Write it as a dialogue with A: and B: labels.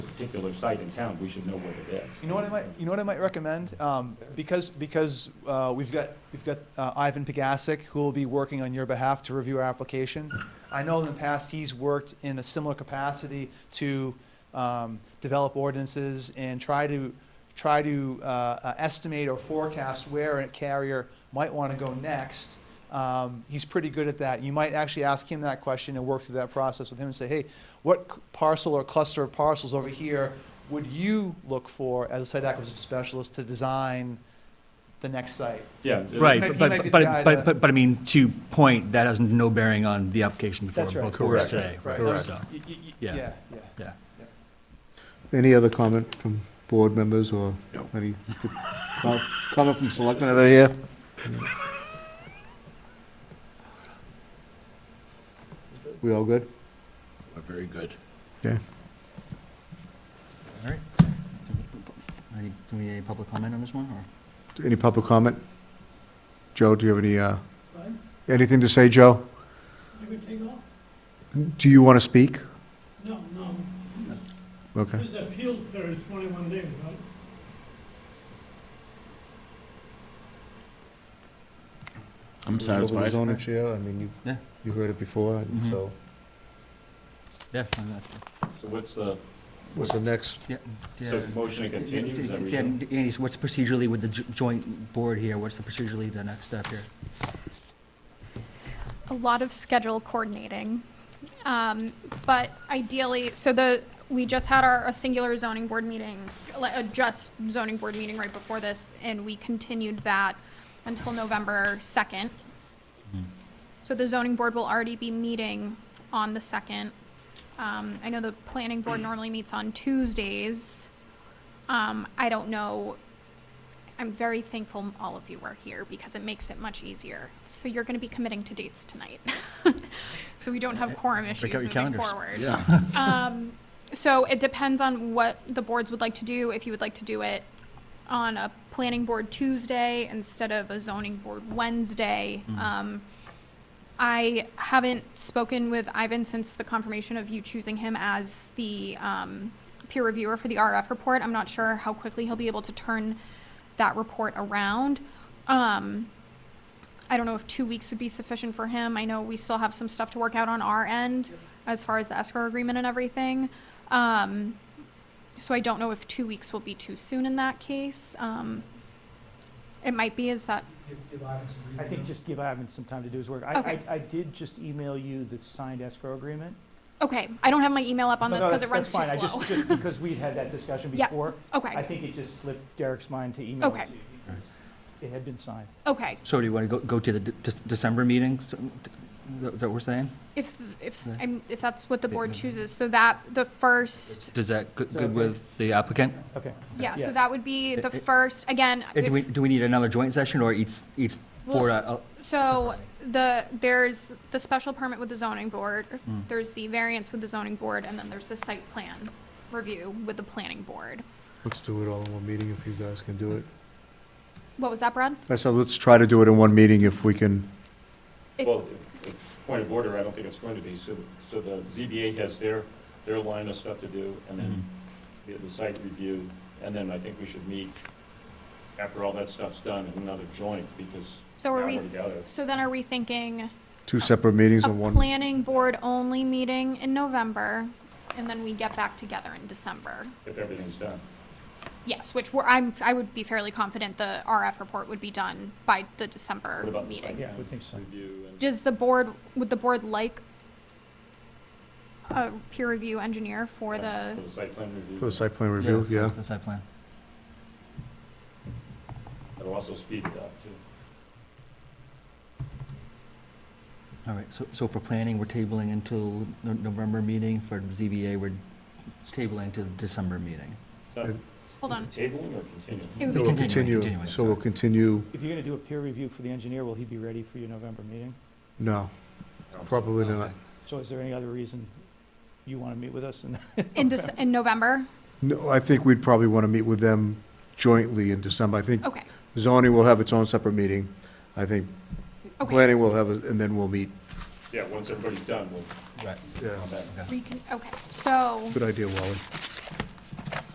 A: particular site in town, we should know what it is.
B: You know what I might, you know what I might recommend? Um, because, because, uh, we've got, we've got uh, Ivan Pegasic, who will be working on your behalf to review our application. I know in the past, he's worked in a similar capacity to, um, develop ordinances and try to, try to, uh, uh, estimate or forecast where a carrier might wanna go next. Um, he's pretty good at that. You might actually ask him that question and work through that process with him and say, hey, what c- parcel or cluster of parcels over here would you look for as a site acquisition specialist to design the next site?
A: Yeah.
B: He might-
C: Right,
B: he
C: but,
B: might be
C: but,
B: the guy
C: but,
B: to-
C: but, but- but I mean, to point, that has no bearing on the application before
B: That's right.
C: both boards today.
B: Right,
C: right,
B: right.
C: so,
B: Y- y- y-
C: Yeah.
B: Yeah, yeah.
C: Yeah.
D: Any other comment from board members or any com- comment from selectmen that are here? We all good?
E: We're very good.
D: Okay.
C: All right. Any, do we, any public comment on this one, or?
D: Any public comment? Joe, do you have any, uh, anything to say, Joe?
F: I could take off?
D: Do you want to speak?
F: No, no.
D: Okay.
F: This appeal period is 21 days, right?
E: I'm
D: Over the
E: satisfied. Mm-hmm.
D: zoning chair, I mean, you,
C: Yeah.
D: you heard it before, and
C: Mhm.
D: so,
C: Yeah. I mean, that's-
A: So what's the,
D: what's the next?
C: Yeah. yeah.
A: so motion to continue, is that what
C: Yeah,
A: you're doing?
C: Andy, so what's procedurally with the jo- joint board here, what's the procedurally the next step here?
G: a lot of schedule coordinating. Um, but ideally, so the, we just had our, a singular zoning board meeting, like, a just zoning board meeting right before this, and we continued that until November second. So the zoning board will already be meeting on the second. Um, I know the planning
C: Mm.
G: board normally meets on Tuesdays. Um, I don't know I'm very thankful all of you are here because it makes it much easier. So you're going to be committing to dates tonight. so we don't have quorum issues
C: out your
G: moving
C: calendars.
G: forward.
E: Yeah,
G: Um, so it depends on what the boards would like to do. If you would like to do it on a planning board Tuesday instead of a zoning board Wednesday.
C: Mm-hmm.
G: Um, I haven't spoken with Ivan since the confirmation of you choosing him as the um, peer reviewer for the RF report. I'm not sure how quickly he'll be able to turn that report around. Um, I don't know if two weeks would be sufficient for him. I know we still have some stuff to work out on our end as far as the escrow agreement and everything. Um, so I don't know if two weeks will be too soon in that case. Um, it might be, is that,
H: I think just give Ivan some time to do his work. I,
G: Okay.
H: I- I did just email you the signed escrow agreement.
G: okay, I don't have my email up on
H: No,
G: this
H: no,
G: because it runs
H: that's-
G: too
H: that's fine. I
G: slow.
H: just- Just because we'd had that discussion
G: Yeah,
H: before. I
G: Okay,
H: think it just slipped Derek's mind to email
G: Okay.
H: it to you. because It had been signed.
G: okay.
C: So do you want to go, go to the de- de- December meetings, is that what we're saying?
G: If, if,
C: Yeah.
G: I'm- if that's what the board
C: Yeah.
G: chooses, so that, the first,
C: Does that, go-
H: okay?
C: good with the applicant?
H: Okay.
G: yeah,
H: Yeah.
G: so that would be the
C: It- it-
G: first, again.
C: And do
G: if-
C: we, do we need another joint session, or each, each
G: Well,
C: board?
G: s-
C: uh, uh,
G: So
C: separately?
G: the, there's the special permit with the zoning board,
C: Mm.
G: there's the variance with the zoning board, and then there's the site plan review with the planning board.
D: Let's do it all in one meeting if you guys can do it.
G: What was that, Brad?
D: I said, let's try to do it in one meeting if we can.
G: If-
A: Well, if- if point of order, I don't think it's going to be, so, so the ZBA has their, their line of stuff to do, and then
H: Mm-hmm.
A: the- the site review, and then I think we should meet after all that stuff's done in another joint, because
G: So
A: now
G: are
A: we're
G: we-
A: together.
G: So then are we thinking
D: Two separate meetings
G: a
D: on one.
G: planning board only meeting in November, and then we get back together in December?
A: If everything's done.
G: Yes, which we're, I'm, I would be fairly confident the RF report would be done by the
A: What
G: December
A: about the site
G: meeting.
H: Yeah, I would think so.
A: review and?
G: Does the board, would the board like a peer review engineer for the?
A: For the site plan review.
D: For the site plan review, yeah.
C: The site plan.
A: It'll also speed it up, too.
C: All right, so, so for planning, we're tabling until No- November meeting, for ZBA, we're tabling until December meeting.
A: Is that
G: Hold on.
A: Tabling or continuing?
G: It would
C: No,
G: be-
D: We'll
C: Continuing,
D: continue,
C: continuing,
D: so we'll
C: sorry.
D: continue,
H: If you're going to do a peer review for the engineer, will he be ready for your November meeting?
D: no, probably not.
H: So is there any other reason you want to meet with us? And
G: In Dec- in November?
D: No, I think we'd probably want to meet with them jointly in December. I think
G: Okay,
D: zoning will have its own separate meeting. I think
G: okay.
D: planning will have, a- and then we'll meet.
A: Yeah, once everybody's done, we'll
C: Right.
D: Yeah,
A: come back.
G: We can, okay, so,
D: good idea, Wally.